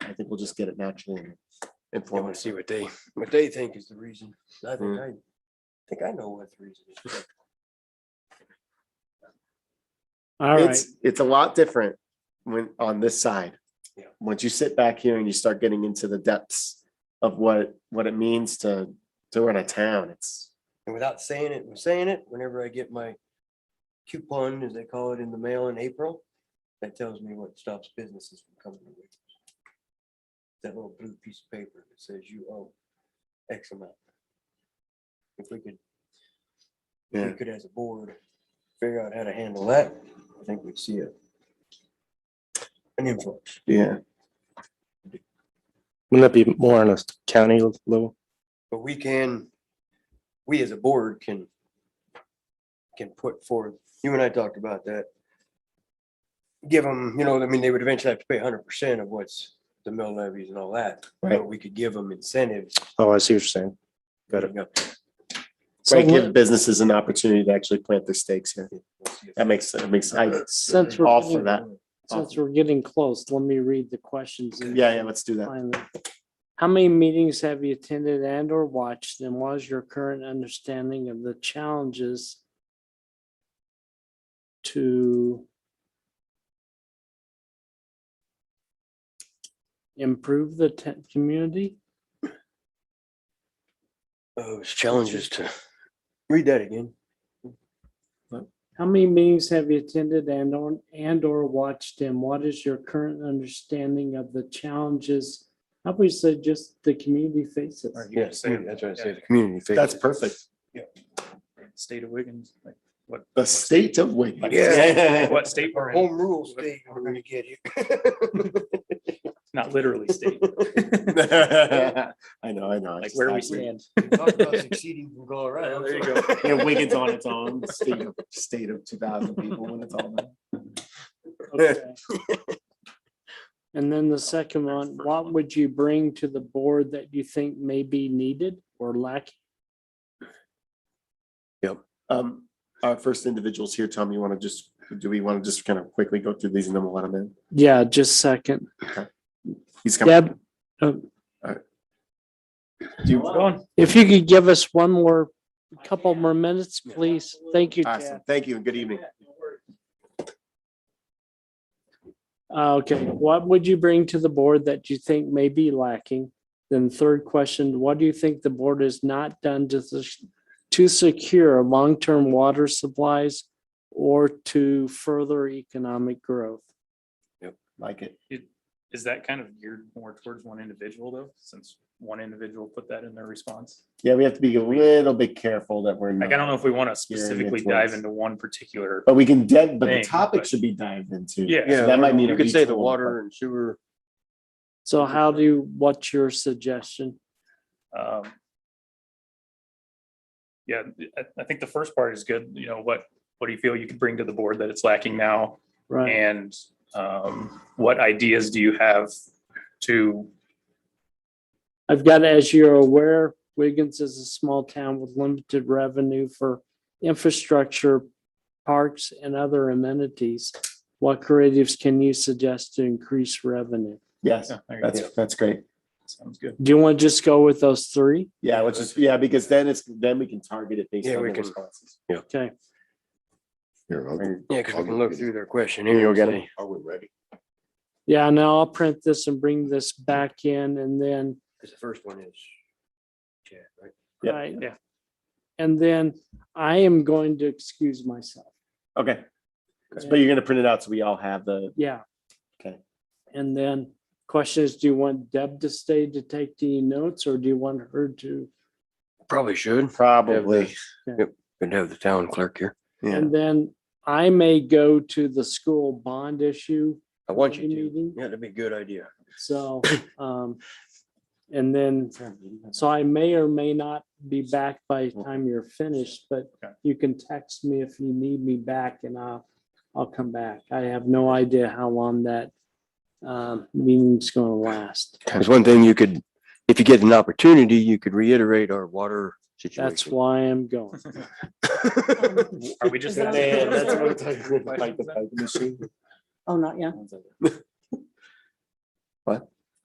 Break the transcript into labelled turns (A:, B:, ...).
A: we'll just get it naturally. and
B: I want
A: informal.
B: to see what they, what they think is the reason. I think I, think I know what the reason is.
C: All right,
A: It's, it's a lot different when, on this side.
B: Yeah.
A: Once you sit back here and you start getting into the depths of what, what it means to, to run a town, it's,
B: And without saying it, I'm saying it, whenever I get my coupon, as they call it, in the mail in April, that tells me what stops businesses from coming to Wiggins. That little blue piece of paper that says you owe X amount. If we could, if we
A: Yeah.
B: could as a board, figure out how to handle that, I think we'd see it. An influence.
A: yeah.
D: Wouldn't that be more on a county level?
B: But we can, we as a board can, can put forth, you and I talked about that. Give them, you know, I mean, they would eventually have to pay hundred percent of what's the mill levies and all that. But
A: Right.
B: we could give them incentives.
D: Oh, I see what you're saying. Got it.
B: We'll
C: So
A: Right, give
C: let-
A: businesses an opportunity to actually plant their stakes here.
B: see if-
A: That makes, that makes, I,
C: since we're,
A: all for
C: getting-
A: that.
C: since we're getting close, let me read the questions. and
A: Yeah, yeah, let's do that.
C: find them. How many meetings have you attended and or watched and what is your current understanding of the challenges to improve the te- community?
B: Those Oh, challenges to, read that again.
C: How many meetings have you attended and or, and or watched and what is your current understanding of the challenges? How we say just the community faces?
B: Yes, that's what I said.
D: Community. figures.
A: That's perfect.
E: state of Wiggins, like what,
A: The state of Wiggins.
B: Yeah.
E: what state we're in,
B: Home rule state we're gonna get here.
E: not literally state,
A: I know, I know. I
E: like
A: just-
E: where
A: I
E: we
A: agree.
E: stand.
B: Talk about succeeding from Colorado.
E: There you go.
A: Yeah, Wiggins on its own, state of, state of two thousand people when it's all done.
C: Okay. And then the second one, what would you bring to the board that you think may be needed or lacking?
A: Um, our first individuals here, Tom, you want to just, do we want to just kind of quickly go through these and then we'll let him in?
C: Yeah, just second.
A: He's coming.
C: Deb, uh,
A: Do you-
E: Going.
C: if you could give us one more, couple more minutes, please. Thank you, Chad.
A: Awesome. Thank you and good evening.
C: Uh, Okay, what would you bring to the board that you think may be lacking? Then third question, what do you think the board has not done to, s- to secure long-term water supplies or to further economic growth?
A: Like it.
E: Is that kind of geared more towards one individual though, since one individual put that in their response?
A: Yeah, we have to be a little bit careful that we're
E: Like, I don't know
A: not,
E: if we want to
A: Yeah, yeah,
E: specifically
A: towards- Oh,
E: dive into one particular,
A: but we can dead, but the
E: Thing,
A: topic
E: but-
A: should be dived into.
E: Yeah.
A: So That might need.
B: You
A: a
B: could say the
A: retool,
B: water and sewer.
C: So how do, you? what's your suggestion?
E: um. Yeah, I, I think the first part is good, you know, what, what do you feel you could bring to the board that it's lacking now?
C: Right,
E: And um, what ideas do you have to
C: I've got, as you're aware, Wiggins is a small town with limited revenue for infrastructure, parks and other amenities. What creatives can you suggest to increase revenue?
A: but- Yes,
E: Yeah, there you go.
A: that's, that's great.
E: Sounds good.
C: Do you want to just go with those three?
A: Yeah, let's just, yeah, because then it's, then we can target it based
B: Yeah,
A: on
B: we
A: the
B: can-
A: responses.
C: Okay,
F: Here, I'll go.
B: Yeah, because we can look through their questionnaire.
A: Here, you'll
B: and
A: get
B: say,
A: it.
F: Are we ready?
C: yeah, now I'll print this and bring this back in and then,
B: Because the first one is. Chad, right?
A: Yep.
C: right?
E: Yeah.
C: And then I am going to excuse myself.
A: Okay. But you're gonna print it out so we all have the,
C: Yeah.
A: Okay.
C: And then question is, do you want Deb to stay to take the notes or do you want her to?
B: Probably should.
A: probably,
B: Could have the town clerk here.
A: yeah,
C: And then I may go to the school bond issue,
B: I want you
C: Any
B: to.
C: meeting?
B: Yeah, that'd be a good idea.
C: so, um, and then, so I may or may not be back by the time you're finished, but
E: Okay.
C: you can text me if you need me back and I'll, I'll come back. I have no idea how long that, um, meeting's gonna last.
B: There's one thing you could, if you get an opportunity, you could reiterate our water situation.
C: That's why I'm going.
E: Are we just?
G: that-
A: Man, that's what I'm
E: Are
A: talking about, like the typing machine.
G: Oh, not yet.